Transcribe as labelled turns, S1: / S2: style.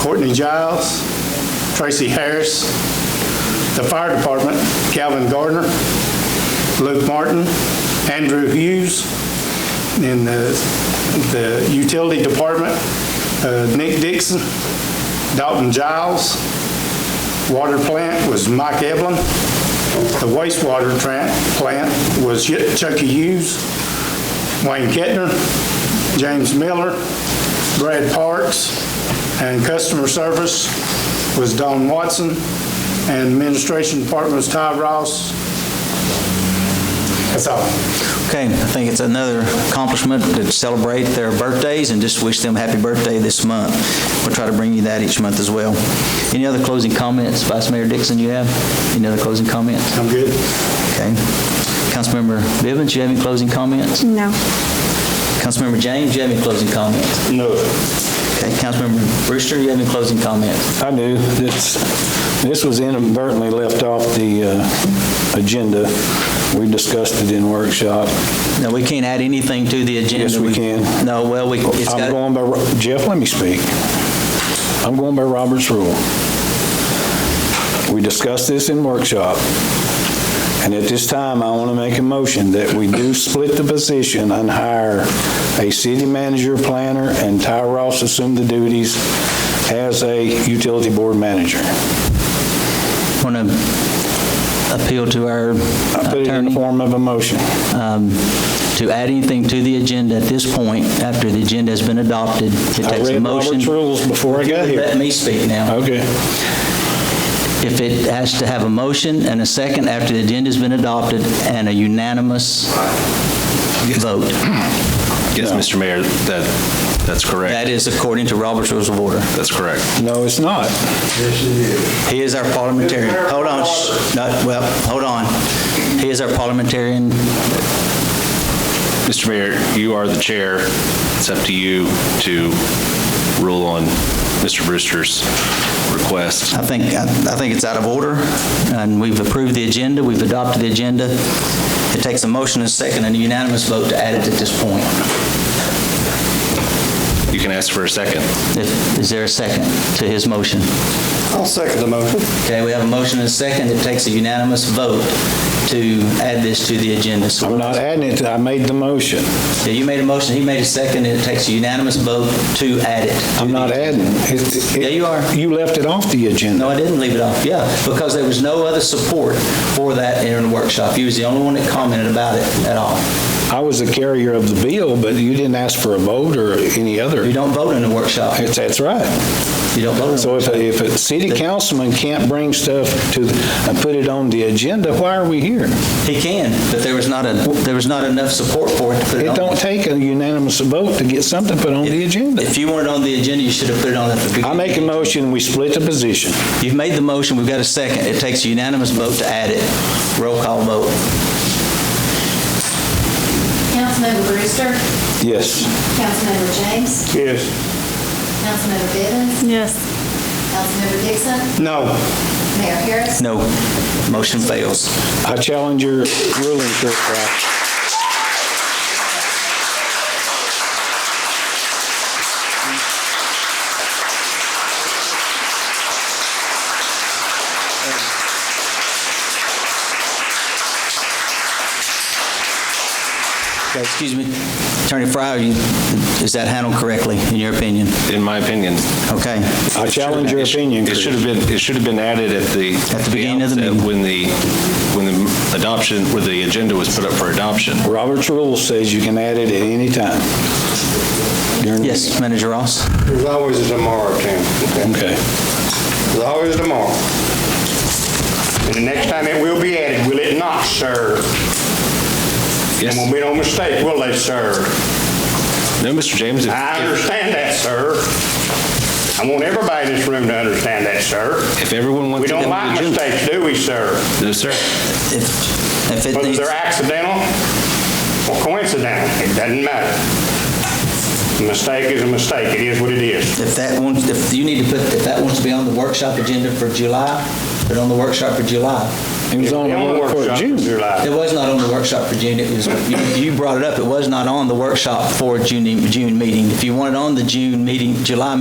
S1: Courtney Giles, Tracy Harris, the Fire Department, Calvin Gardner, Luke Martin, Andrew Hughes, and the the Utility Department, uh, Nick Dixon, Dalton Giles. Water plant was Mike Evelyn. The wastewater tran- plant was Chucky Hughes. Wayne Kettner, James Miller, Brad Parks, and customer service was Don Watson, and administration department was Ty Ross. That's all.
S2: Okay, I think it's another accomplishment to celebrate their birthdays and just wish them happy birthday this month. We'll try to bring you that each month as well. Any other closing comments, Vice Mayor Dixon, you have? Any other closing comments?
S1: I'm good.
S2: Okay. Councilmember Bivens, you have any closing comments?
S3: No.
S2: Councilmember James, you have any closing comments?
S4: No,
S2: Okay, Councilmember Brewster, you have any closing comments?
S4: I do. This, this was inadvertently left off the uh, agenda. We discussed it in workshop.
S2: No, we can't add anything to the agenda.
S4: Yes, we can.
S2: No, well, we, it's
S4: I'm
S2: got,
S4: going by, Ro- Jeff, let me speak. I'm going by Robert's rule. We discussed this in workshop, and at this time, I want to make a motion that we do split the position and hire a city manager planner, and Ty Ross assume the duties as a utility board manager.
S2: want to appeal to our
S4: I put it in the
S2: attorney.
S4: form of a motion.
S2: um, to add anything to the agenda at this point, after the agenda has been adopted, it
S4: I
S2: takes a
S4: read
S2: motion.
S4: Robert's rules before I
S2: Let
S4: got here.
S2: me speak now.
S4: Okay.
S2: If it has to have a motion and a second after the agenda's been adopted and a unanimous vote.
S5: Yes,
S4: No.
S5: Mr. Mayor, that, that's correct.
S2: That is according to Robert's Rules of Order.
S5: That's correct.
S4: No, it's not.
S2: He is our parliamentarian. Hold on, shh, no, well, hold on. He is our parliamentarian.
S5: Mr. Mayor, you are the chair. It's up to you to rule on Mr. Brewster's request.
S2: I think, I I think it's out of order, and we've approved the agenda, we've adopted the agenda. It takes a motion and a second and a unanimous vote to add it at this point.
S5: You can ask for a second.
S2: If- Is there a second to his motion?
S1: I'll second the motion.
S2: Okay, we have a motion and a second, it takes a unanimous vote to add this to the agenda. So
S4: I'm not adding it. I made the motion.
S2: Yeah, you made a motion, he made a second, and it takes a unanimous vote to add it.
S4: I'm not adding. It- it-
S2: Yeah, you are.
S4: You left it off the agenda.
S2: No, I didn't leave it off, yeah, because there was no other support for that in the workshop. You was the only one that commented about it at all.
S4: I was the carrier of the bill, but you didn't ask for a vote or any
S2: You
S4: other.
S2: don't vote in the workshop.
S4: It's- That's right.
S2: You don't vote in the
S4: So if, a- if a city councilman can't bring stuff to, and put it on the agenda, why are we here?
S2: He can, but there was not a, there was not enough support for it to put it
S4: It don't
S2: on.
S4: take a unanimous vote to get something put on the agenda.
S2: If you wanted on the agenda, you should have put it on at the beginning.
S4: I make a motion, we split the position.
S2: You've made the motion, we've got a second. It takes a unanimous vote to add it. Roll call vote.
S6: Councilmember Brewster,
S4: Yes.
S6: Councilmember James,
S1: Yes.
S6: Councilmember Bivens,
S3: Yes.
S6: Councilmember Dixon,
S1: No.
S6: Mayor Harris.
S2: No, motion fails.
S4: I challenge your ruling, Kirk Price.
S2: Okay, excuse me, Attorney Fryer, you- is that handled correctly, in your opinion?
S5: In my opinion,
S2: Okay,
S4: I challenge your
S5: It should-
S4: opinion,
S5: It
S4: Chris.
S5: should have been, it should have been added at the.
S2: At the beginning of the
S5: outset
S2: meeting.
S5: When the, when the adoption, where the agenda was put up for adoption.
S4: Robert's rule says you can add it at any time. During-
S2: yes, Manager Ross?
S7: There's always a tomorrow, Tim.
S4: Okay.
S7: There's always a tomorrow. And the next time it will be added, will it not, sir?
S5: Yes.
S7: And when we don't mistake, will they, sir?
S5: No, Mr. James, if-
S7: I understand that, sir. I want everybody in this room to understand that, sir.
S5: if everyone
S7: We
S5: wants to go
S7: don't
S5: to the
S7: like
S5: agenda.
S7: mistakes, do we, sir?
S5: No, sir.
S2: If if it
S7: Whether
S2: needs,
S7: they're accidental or coincidental, it doesn't matter. A mistake is a mistake. It is what it is.
S2: if that wants, if you need to put, if that wants to be on the workshop agenda for July, put it on the workshop for July.
S4: It was on the warrant for
S7: Workshop,
S4: June.
S7: you're live.
S2: It was not on the workshop for June, it was, you you brought it up, it was not on the workshop for June, June meeting. If you want it on the June meeting, July